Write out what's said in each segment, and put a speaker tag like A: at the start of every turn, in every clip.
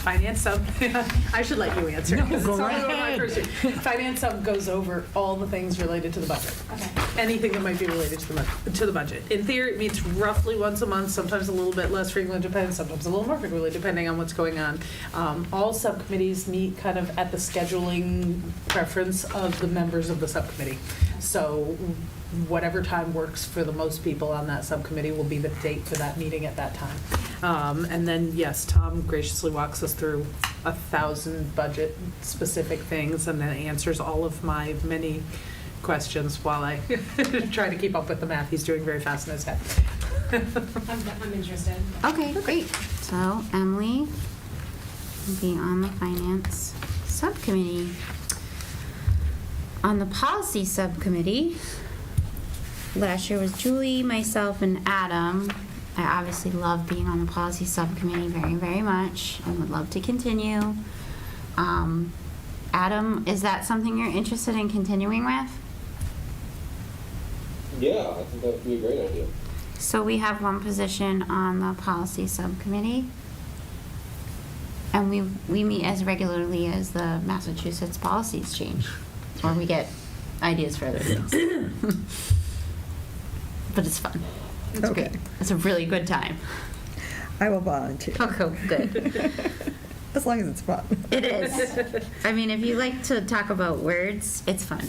A: finance sub, I should let you answer.
B: No,
A: 'cause
B: go
A: it's not
B: right
A: one of my
B: ahead.
A: first- Finance sub goes over all the things related to the budget.
C: Okay.
A: Anything that might be related to the, bu- to the budget. In theory, it meets roughly once a month, sometimes a little bit less frequently, depending, sometimes a little more frequently, depending on what's going on. Um, All subcommittees meet kind of at the scheduling preference of the members of the subcommittee. So whatever time works for the most people on that subcommittee will be the date for that meeting at that time. Um, And then, yes, Tom graciously walks us through a thousand budget-specific things and then answers all of my many questions while I try to keep up with the math. He's doing very fast in his head.
C: I'm, I'm interested.
D: Okay, great. So Emily will be on the finance subcommittee. On the policy subcommittee, last year was Julie, myself, and Adam. I obviously love being on the policy subcommittee very, very much and would love to continue. Um, Adam, is that something you're interested in continuing with?
E: Yeah, I think that would be a great idea.
D: So we have one position on the policy subcommittee. And we, we meet as regularly as the Massachusetts policies change, or we get ideas for other things. But it's fun. It's great.
F: Okay.
D: It's a really good time.
F: I will volunteer.
D: Okay, good.
F: As long as it's fun.
D: It is. I mean, if you like to talk about words, it's fun.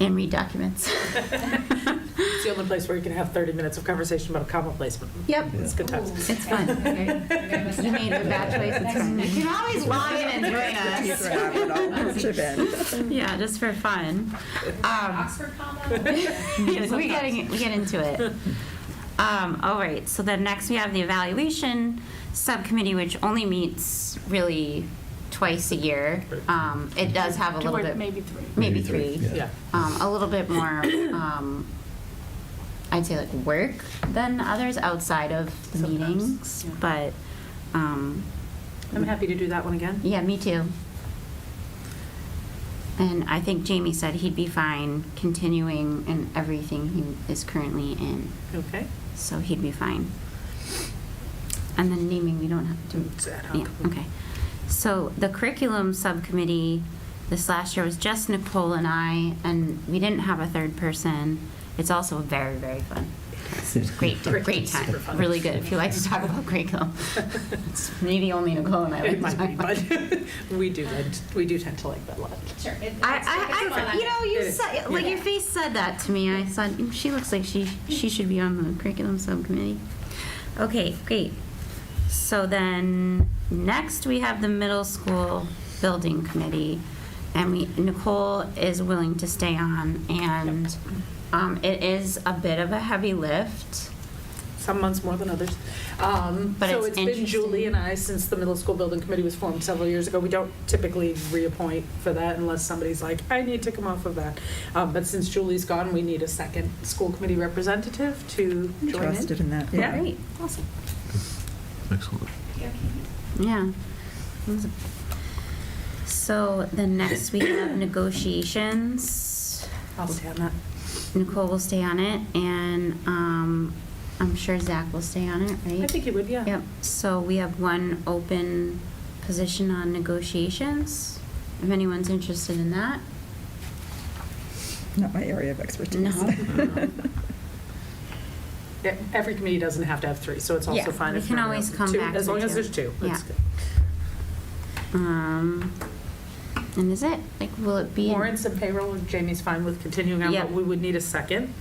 D: And read documents.
A: It's the only place where you can have 30 minutes of conversation about a comma placement.
D: Yep.
A: It's good times.
D: It's fun. You made a bad choice. It's fine. You can always lie and
F: Just
D: join
F: wrap it all, chip in.
D: us. Yeah, just for fun. Um,
C: Oxford combo?
D: we getting we get into it. Um, all right. So then next we have the evaluation subcommittee, which only meets really twice a year. Um, it does have a
C: Two
D: little
C: or
D: bit,
C: maybe three.
D: maybe
B: Maybe three,
D: three.
A: Yeah.
D: um, a little bit more, um, I'd say like work than others outside of the
A: Sometimes,
D: meetings.
A: yeah.
D: But um,
A: I'm happy to do that one again.
D: yeah, me too. And I think Jamie said he'd be fine continuing in everything he is currently in,
A: Okay.
D: so he'd be fine. And then naming, we don't have to.
A: It's ad
D: Yeah,
A: hoc.
D: okay. So the curriculum subcommittee, this last year was just Nicole and I, and we didn't have a third person. It's also very, very fun. It's Great, great
A: Curriculum's
D: time,
A: super fun.
D: really good. If you like to talk about curriculum, it's maybe only Nicole and I like
A: It
D: to talk
A: might be,
D: about.
A: but we do, tend- we do tend to like that a lot.
C: Sure. it- it's-
D: I,
C: it's
D: I, I,
C: fun.
D: you know,
A: It
D: you
A: is.
D: said, like your face said that to me. I said "Mm, she looks like she she should be on the curriculum subcommittee. Okay, great. So then next we have the middle school building committee, and we Nicole is willing to stay on, and um, it is a bit of a heavy lift.
A: some months more than others. Um,
D: But
A: so it's
D: it's
A: been Julie
D: interesting.
A: and I since the middle school building committee was formed several years ago. We don't typically reappoint for that unless somebody's like, I need to come off of that. Um, but since Julie's gone, we need a second school committee representative to join in.
F: Interested in that,
A: Yeah.
F: yeah.
D: Great, awesome.
B: Excellent.
C: Okay.
D: Yeah. So then next we have negotiations.
A: I'll stay on that.
D: Nicole will stay on it, and um, I'm sure Zach will stay on it, right?
A: I think you would, yeah.
D: Yep, so we have one open position on negotiations, if anyone's interested in that.
F: Not my area of expertise. Uh,
D: No.
A: E- Every committee doesn't have to have three, so it's also
D: Yeah,
A: fine
D: we
A: if
D: can
A: there are
D: always come
A: two,
D: back
A: as
D: to
A: long as
D: two.
A: there's two. That's
D: Yeah.
A: good.
D: Um, and is it, like, will it be?
A: Warrants and payroll, Jamie's fine with continuing on,
D: Yeah. Mm.
A: but we would need a second,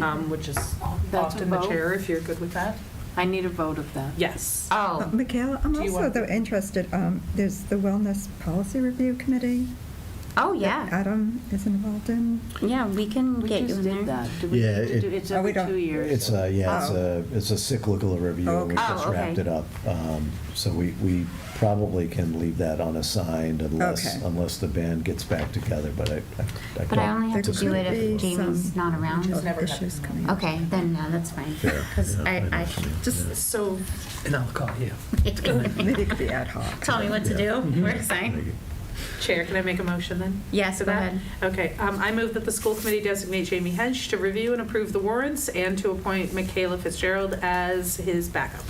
A: um, which is
G: That's a
A: often the
G: vote.
A: chair if you're good with that.
G: I need a vote of that.
A: Yes.
F: Uh,
D: Oh,
F: Michaela, I'm
A: Do you
F: also
A: want-
F: though interested, um, there's the Wellness Policy Review Committee.
D: oh,
F: that
D: yeah,
F: Adam is involved in.
D: yeah, we can
G: We
D: get you
G: just
D: in
G: did
D: there.
G: that. Do we
H: Yeah,
G: need to
H: it-
G: do- It's
F: Oh, we
G: every
F: don't-
G: two
H: It's
G: years.
H: a, yeah, it's
F: Oh.
H: a, it's a cyclical review. We
F: Okay.
H: just
D: Oh, okay.
H: wrapped it up. Um, So we, we probably can leave that unassigned unless,
F: Okay.
H: unless the band gets back together, but I.
D: But I only have to
F: There
D: do it
F: could
D: if
F: be
D: Jamie's
F: some
D: not around.
F: health
A: never happened.
F: Issues coming up.
D: Okay, then, no, that's fine, because I, I
F: Just
A: So
B: And I'll call you.
F: Maybe it could be ad hoc.
D: Tell me what to do, we're excited.
A: Chair, can I make a motion then?
D: Yes,
A: to
D: go
A: that?
D: ahead.
A: Okay, um, I move that the school committee designate Jamie Hench to review and approve the warrants and to appoint Michaela Fitzgerald as his backup.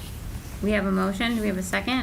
D: We have a motion, do we have a second?